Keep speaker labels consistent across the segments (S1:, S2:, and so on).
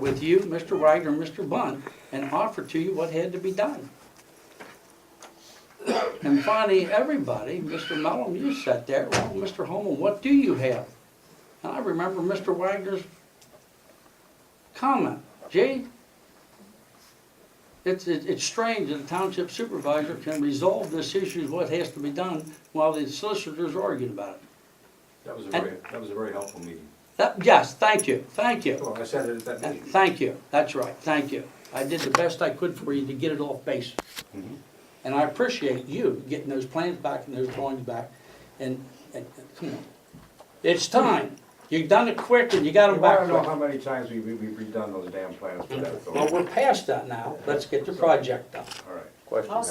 S1: with you, Mr. Wagner, and Mr. Bunn, and offered to you what had to be done. And finally, everybody, Mr. Mellon, you sat there, well, Mr. Holman, what do you have? And I remember Mr. Wagner's comment, gee, it's, it- it's strange that the township supervisor can resolve this issue, what has to be done, while the solicitors are arguing about it.
S2: That was a
S1: And-
S2: very, that was a very helpful meeting.
S1: That, yes, thank you, thank you.
S2: Well, I said it at that
S1: Th-
S2: meeting.
S1: Thank you, that's right, thank you. I did the best I could for you to get it off base.
S2: Mhm.
S1: And I appreciate you getting those plans back and those drawings back, and, and, and come on. It's time, you've done it quick and you got
S3: You
S1: them back
S3: wanna know how
S1: quick.
S3: many times we, we- we've redone those damn plans for that,
S1: Well,
S3: so,
S1: we're past that now, let's get the project done.
S3: all right.
S4: Question,
S5: I'll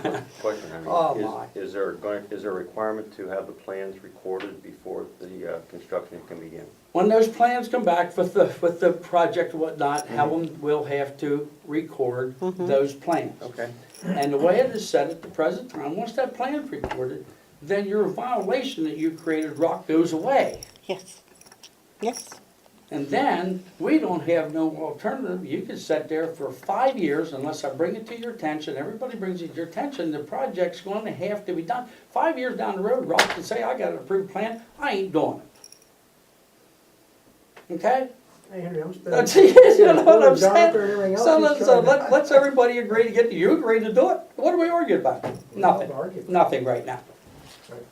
S4: Henry. Question,
S1: Oh,
S4: Henry.
S1: my.
S4: Is- Is there going, is there a requirement to have the plans recorded before the uh, construction can begin?
S1: When those plans come back with the, with the project and whatnot, Helen will have to record those plans.
S4: Okay.
S1: And the way it is set at the present time, once that plan's recorded, then your violation that you created, Rock, goes away.
S6: Yes. Yes.
S1: And then, we don't have no alternative, you can sit there for five years unless I bring it to your attention, everybody brings it to your attention, the project's gonna have to be done. Five years down the road, Rock can say, I got an approved plan, I ain't doing it. Okay?
S7: Hey, Henry, I'm spending.
S1: That's, you know what I'm
S7: Doctor and
S1: saying?
S7: everything else,
S1: So
S7: he's
S1: let's, uh,
S7: trying to-
S1: let- let's everybody agree to get, you agree to do it. What are we arguing about? Nothing,
S7: arguing.
S1: nothing right now.
S7: Right.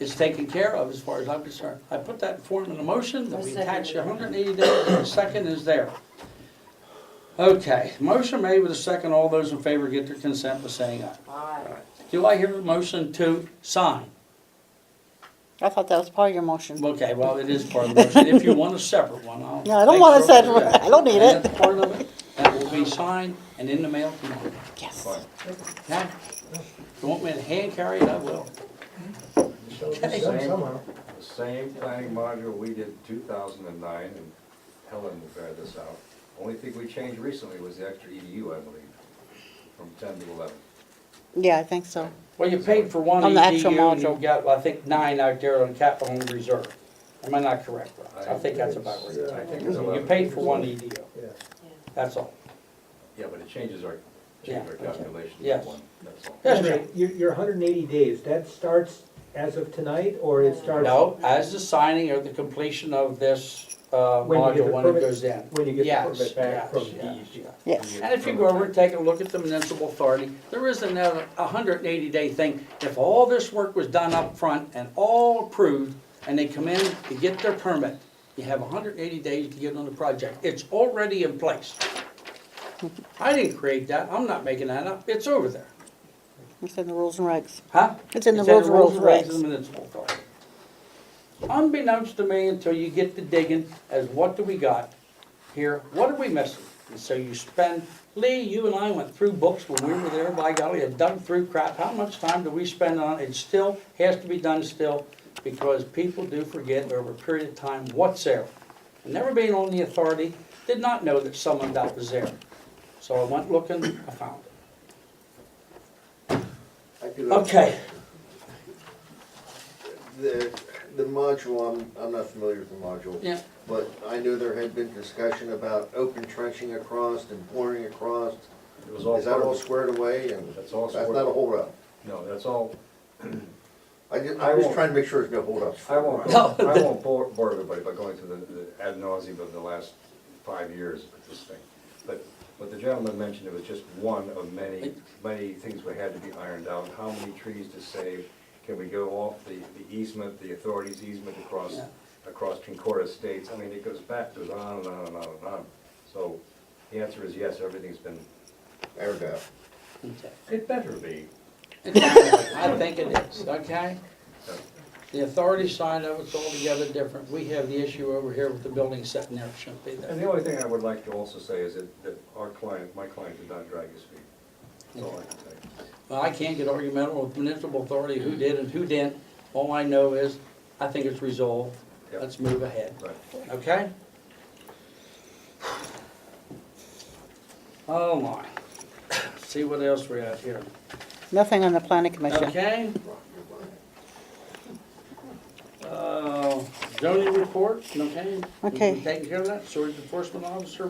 S1: It's taken care of as far as I'm concerned. I put that in form in a motion that
S5: I
S1: we
S5: second
S1: attach
S5: it.
S1: hundred and eighty days, and the second is there. Okay, motion made with a second, all those in favor get their consent by saying aye.
S5: Aye.
S1: Do I hear a motion to sign?
S6: I thought that was part of your motion.
S1: Okay, well, it is part of the motion, if you want a separate one, I'll.
S6: No, I don't want a
S1: make sure-
S6: separate one. I don't need
S1: And
S6: it.
S1: that's part of it, that will be signed and in the mail tomorrow.
S6: Yes.
S1: Okay? You want me to hand carry it, I will.
S7: So it's done Somehow.
S3: The same planning module we did in two thousand and nine, and Helen will bear this out. Only thing we changed recently was the extra EDU, I believe, from ten to eleven.
S6: Yeah, I think so.
S1: Well, you paid for one
S6: On the actual
S1: EDU, and you
S6: module.
S1: got, I think, nine out there on capital and reserve. Am I not correct, Rob? I think that's about
S3: Yeah, I
S1: right.
S3: think it's
S1: You
S3: 11.
S1: paid for one EDU,
S7: Yeah.
S1: that's all.
S3: Yeah, but it changes our,
S1: Yeah,
S3: changes our
S1: okay.
S3: calculation
S1: Yes.
S3: to one, that's all.
S1: Yes,
S8: Wait a
S1: sir.
S8: minute, Your, your hundred and eighty days, that starts as of tonight, or it starts?
S1: No, as the signing or the completion of this, uh,
S8: When you get
S1: module,
S8: the
S1: when it
S8: permit-
S1: goes in.
S8: When you get the
S1: Yes,
S8: permit back from
S1: yes, yes,
S8: DEC?
S1: yes.
S6: Yes.
S1: And if you go over and take a look at the municipal authority, there is another 180-day thing. If all this work was done up front and all approved, and they come in to get their permit, you have 180 days to get on the project. It's already in place. I didn't create that, I'm not making that up, it's over there.
S6: It's in the rules and regs.
S1: Huh?
S6: It's in the rules, rules,
S1: and regs of
S6: regs.
S1: the municipal authority. Unbeknownst to me until you get to digging as what do we got here, what are we missing? And so you spend, Lee, you and I went through books when we were there, by golly, and dug through crap. How much time do we spend on it? It still has to be done still because people do forget over a period of time what's there. And Never being on the authority, did not know that someone that was there. So I went looking, I found it.
S9: I could-
S1: Okay,
S9: The, the module, I'm, I'm not familiar with the module.
S1: yeah.
S9: But I knew there had been discussion about open trenching across and pouring across.
S3: It was all
S9: Is that
S3: part
S9: all
S3: of,
S9: squared away and
S3: that's all
S9: that's
S3: squared.
S9: not a holdup?
S3: No, that's all,
S9: I just,
S3: I
S9: I'm just
S3: won't-
S9: trying to make sure there's no holdups.
S3: I won't,
S1: No,
S3: go- I won't bore, bore everybody by going through the, the ad nauseum of the last five years with this thing. But what the gentleman mentioned, it was just one of many, many things that had to be ironed out. How many trees to save? Can we go off the, the easement, the authority's easement across,
S1: Yeah.
S3: across Concord Estates? I mean, it goes back, goes on and on and on and on. So the answer is yes, everything's been,
S9: There we go.
S1: Okay.
S3: it better be.
S1: I think it is, okay? The authority side of it's altogether different. We have the issue over here with the building sitting there, it shouldn't be
S3: And
S1: there.
S3: the only thing I would like to also say is that, that our client, my client did not drag his feet. That's all I can say.
S1: Well, I can't get argumental with municipal authority, who did and who didn't. All I know is, I think it's resolved.
S3: Yep.
S1: Let's move ahead,
S3: Right.
S1: okay? Oh my, see what else we have here.
S6: Nothing on the planning commission.
S1: Okay? Uh, zoning report, okay? Uh,
S6: Okay.
S1: Taking care of that, Sword enforcement officer